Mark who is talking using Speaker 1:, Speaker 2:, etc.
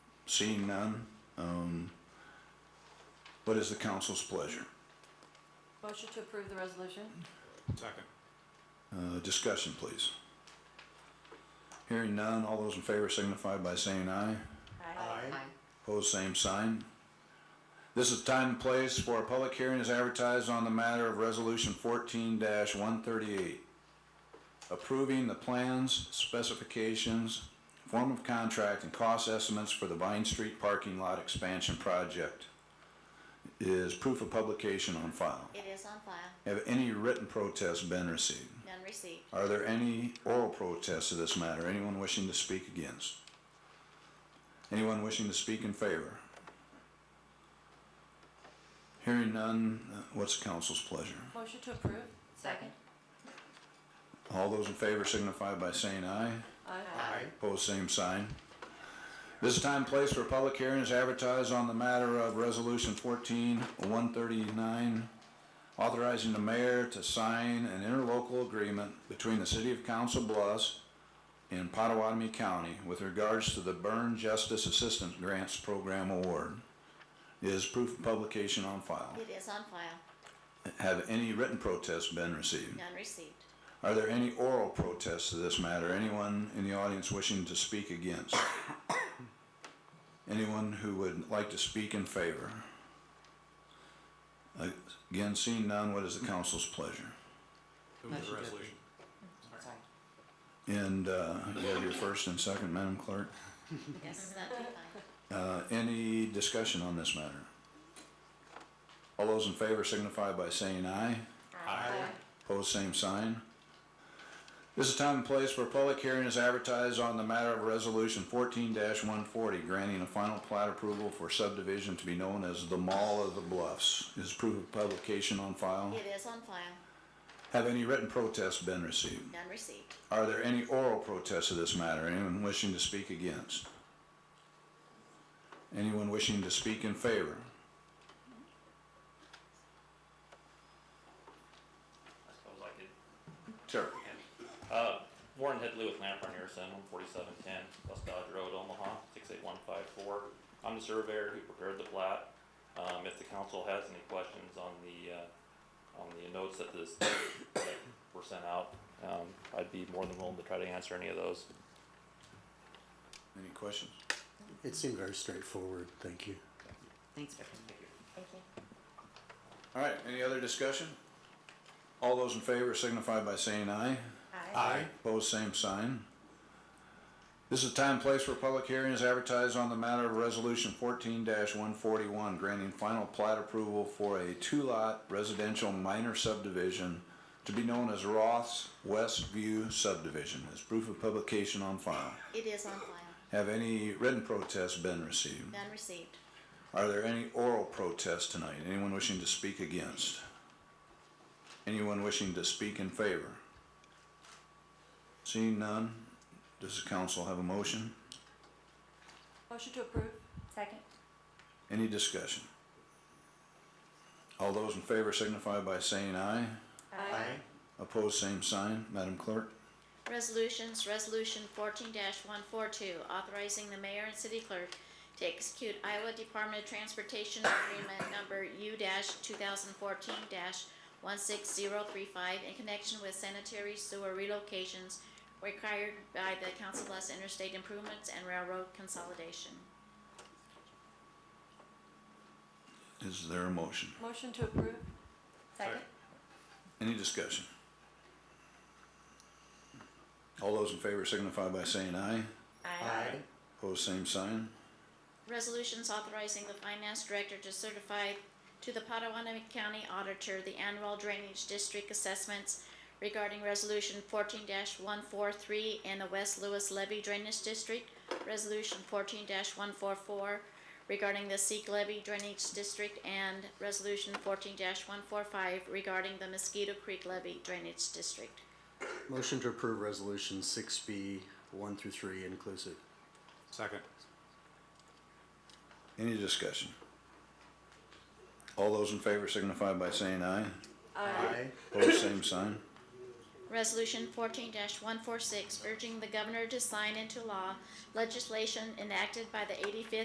Speaker 1: Seeing none, um, what is the council's pleasure?
Speaker 2: Motion to approve the resolution?
Speaker 3: Second.
Speaker 1: Uh, discussion, please. Hearing none, all those in favor signify by saying aye.
Speaker 3: Aye.
Speaker 1: Opposed, same sign. This is time and place where a public hearing is advertised on the matter of Resolution fourteen one thirty-eight. Approving the plans, specifications, form of contract, and cost estimates for the Vine Street Parking Lot Expansion Project. Is proof of publication on file.
Speaker 4: It is on file,
Speaker 1: Have any written protests been received?
Speaker 4: none received.
Speaker 1: Are there any oral protests to this matter? Anyone wishing to speak against? Anyone wishing to speak in favor? Hearing none, uh, what's the council's pleasure?
Speaker 2: Motion to approve? Second.
Speaker 1: All those in favor signify by saying aye.
Speaker 2: Aye.
Speaker 1: Opposed, same sign. This time and place for public hearing is advertised on the matter of Resolution fourteen one thirty-nine, authorizing the mayor to sign an interlocal agreement between the city of Council Bluffs and Pottawatomie County with regards to the Burn Justice Assistance Grants Program Award. Is proof of publication on file.
Speaker 4: It is on file,
Speaker 1: Have any written protests been received?
Speaker 4: none received.
Speaker 1: Are there any oral protests to this matter? Anyone in the audience wishing to speak against? Anyone who would like to speak in favor? Again, seeing none, what is the council's pleasure?
Speaker 3: Move the resolution.
Speaker 1: And uh, you have your first and second, Madam Clerk.
Speaker 4: Yes, that'd be fine.
Speaker 1: Uh, Any discussion on this matter? All those in favor signify by saying aye.
Speaker 3: Aye.
Speaker 1: Pose same sign. This is time and place where public hearing is advertised on the matter of resolution fourteen one forty, granting a final plat approval for subdivision to be known as the Mall of the Bluffs. Is proof of publication on file?
Speaker 4: It is on file,
Speaker 1: Have any written protests been received?
Speaker 4: none received.
Speaker 1: Are there any oral protests to this matter? Anyone wishing to speak against? Anyone wishing to speak in favor?
Speaker 5: I suppose I could.
Speaker 1: Sure.
Speaker 5: Uh, Warren Headley with Lamp Run Harrison, one forty-seven ten, West Dodge Road, Omaha, six eight one five four. I'm the surveyor who prepared the plat. Um, if the council has any questions on the, uh, on the notes that this, that were sent out, um, I'd be more than willing to try to answer any of those.
Speaker 1: Any questions?
Speaker 6: It seemed very straightforward, thank you.
Speaker 7: Thanks for
Speaker 4: Thank you.
Speaker 1: All right, any other discussion? All those in favor signify by saying aye.
Speaker 3: Aye.
Speaker 1: Opposed, same sign. This is time and place where public hearing is advertised on the matter of Resolution fourteen one forty-one, granting final plat approval for a two-lot residential minor subdivision to be known as Roth's West View subdivision, as proof of publication on file.
Speaker 4: It is on file,
Speaker 1: Have any written protests been received?
Speaker 4: none received.
Speaker 1: Are there any oral protests tonight? Anyone wishing to speak against? Anyone wishing to speak in favor? Seeing none, does the council have a motion?
Speaker 2: Motion to approve? Second.
Speaker 1: Any discussion? All those in favor signify by saying aye.
Speaker 2: Aye.
Speaker 1: Opposed, same sign. Madam Clerk?
Speaker 4: Resolutions, Resolution fourteen one four two, authorizing the mayor and city clerk to execute Iowa Department of Transportation Agreement Number U two thousand fourteen one six zero three five in connection with sanitary sewer relocations required by the Council Bluffs Interstate Improvements and Railroad Consolidation.
Speaker 1: Is there a motion?
Speaker 2: Motion to approve?
Speaker 3: Second.
Speaker 1: Any discussion? All those in favor signify by saying aye.
Speaker 3: Aye.
Speaker 1: Opposed, same sign.
Speaker 4: Resolutions authorizing the finance director to certify to the Potawatomi County Auditor the annual drainage district assessments regarding Resolution fourteen one four three in the West Lewis Levy Drainage District, Resolution fourteen one four four regarding the Seek Levy Drainage District, and Resolution fourteen one four five regarding the Mosquito Creek Levy Drainage District.
Speaker 6: Motion to approve resolution six B, one through three inclusive.
Speaker 3: Second.
Speaker 1: Any discussion? All those in favor signify by saying aye. Opposed, same sign.
Speaker 4: Resolution fourteen one four six urging the governor to sign into law legislation enacted by the eighty-fifth